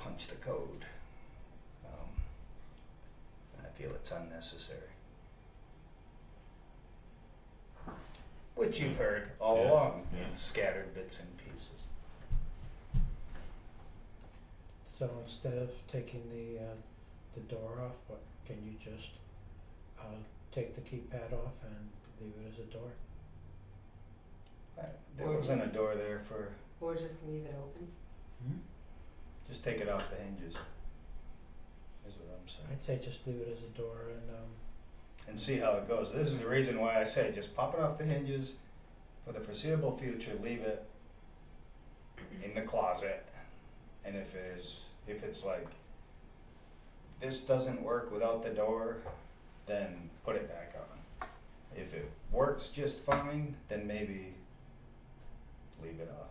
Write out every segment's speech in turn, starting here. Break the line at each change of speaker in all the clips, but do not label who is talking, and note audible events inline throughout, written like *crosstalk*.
challenge the code. Um, and I feel it's unnecessary. Which you've heard all
Yeah,
along
yeah.
in scattered bits and pieces.
So instead of taking the uh the door off, what can you just uh take the keypad off and leave it as a door?
I, there
Or
wasn't a
just-
door there for
Or just leave it open?
Hmm?
just take it off the hinges. Is what I'm saying.
I'd say just leave it as a door and um
and see how it goes. This is the reason why I say just pop it off the hinges for the foreseeable future. Leave it in the closet, and if it is, if it's like this doesn't work without the door, then put it back on. If it works just fine, then maybe leave it off.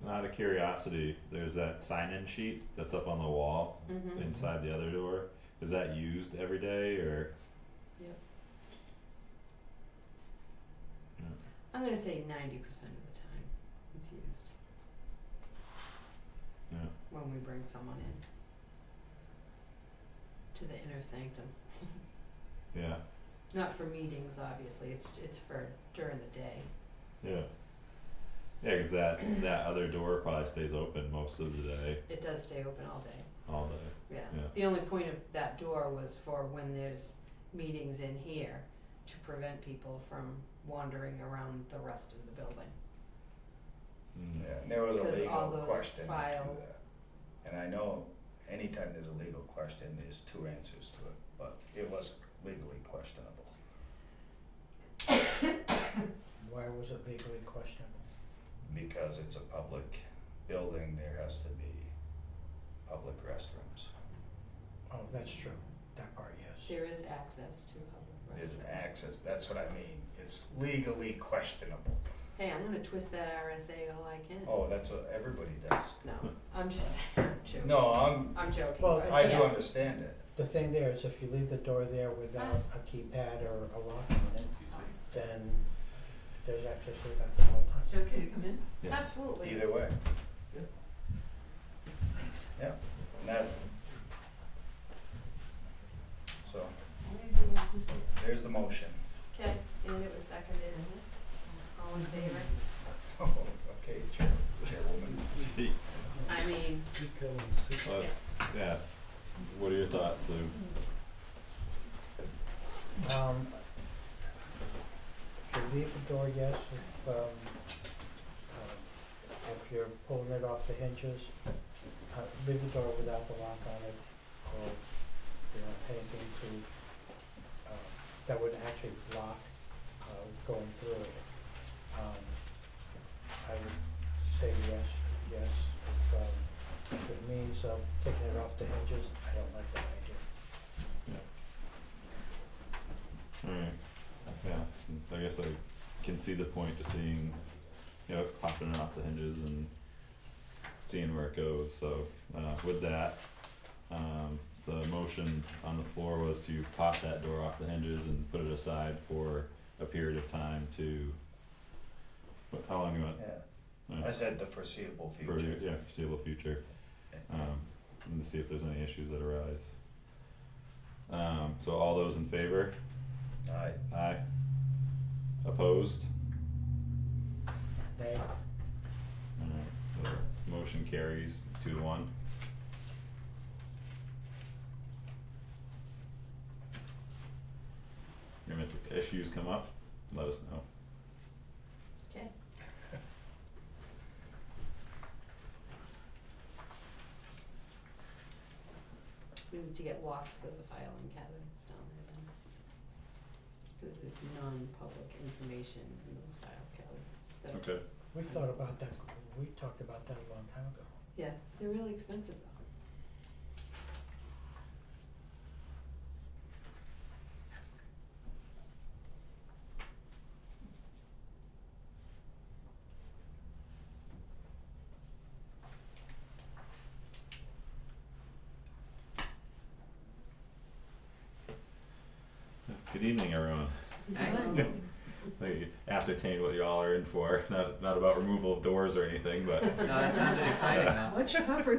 And out of curiosity, there's that sign-in sheet that's up on the wall
Mm-hmm.
inside the other door. Is that used every day or?
I'm gonna say ninety percent of the time it's used
Yeah.
when we bring someone in to the inner sanctum.
Yeah,
Not for meetings, obviously, it's, it's for during the day.
yeah. Yeah, 'cause that that other door probably stays open most of the day,
It does stay open all day,
all day.
yeah.
Yeah.
The only point of that door was for when there's meetings in here to prevent people from wandering around the rest of the building.
Mm.
Yeah, and there was a
Because all
legal
those
question to
file-
that. And I know anytime there's a legal question, there's two answers to it, but it was legally questionable.
why was it legally questionable?
because it's a public building, there has to be public restrooms.
Oh, that's true, that part, yes.
There is access to public
There's
restrooms.
an access, that's what I mean, it's legally questionable.
Hey, I'm gonna twist that RSA all I can.
Oh, that's what everybody does.
No, I'm just *laughs* saying, I'm joking.
No, I'm,
I'm joking.
Well,
but
I do
yeah.
understand it.
The thing there is if you leave the door there without a keypad or a lock on it,
Sorry.
then there's access to that the whole time.
Is it okay to come in?
Yes.
Absolutely.
Either way,
Thanks.
and that. So, there's the motion. *laughs*
Okay, and it was seconded, isn't it? All in favor?
Okay, Chair, Chairwoman.
Jeez.
I mean,
Well, yeah. What are your thoughts, Lou?
Um, to leave the door, yes, if, um, um, uh, if you're pulling it off the hinges, uh, leave the door without the lock on it, or, you know, anything to, uh, that would actually block, uh, going through it. Um, I would say yes, yes, if, um, if it means, uh, taking it off the hinges, I don't like that idea.
Alright, Mm. yeah, I guess I can see the point to seeing, you know, popping it off the hinges and seeing where it goes, so, uh, with that, um, the motion on the floor was to pop that door off the hinges and put it aside for a period of time to, what, how long you want?
Yeah,
uh,
I said the foreseeable
for-
future.
Yeah, foreseeable future, um, and to see if there's any issues that arise. Um, so all those in favor?
Aye.
Aye. Opposed?
Nay?
Alright, so motion carries two to one. And if issues come up, let us know.
okay. We need to get locks for the filing cabinets down there then. Cause there's non-public information in those file cabinets that are
Okay.
We thought about that, we talked about that a long time ago.
Yeah, they're really expensive though.
Good evening, everyone.
*laughs* Right.
I ascertained what *laughs*
*laughs*
y'all are in for, not, not about removal of doors or anything, but
No, that sounded exciting though.
Much tougher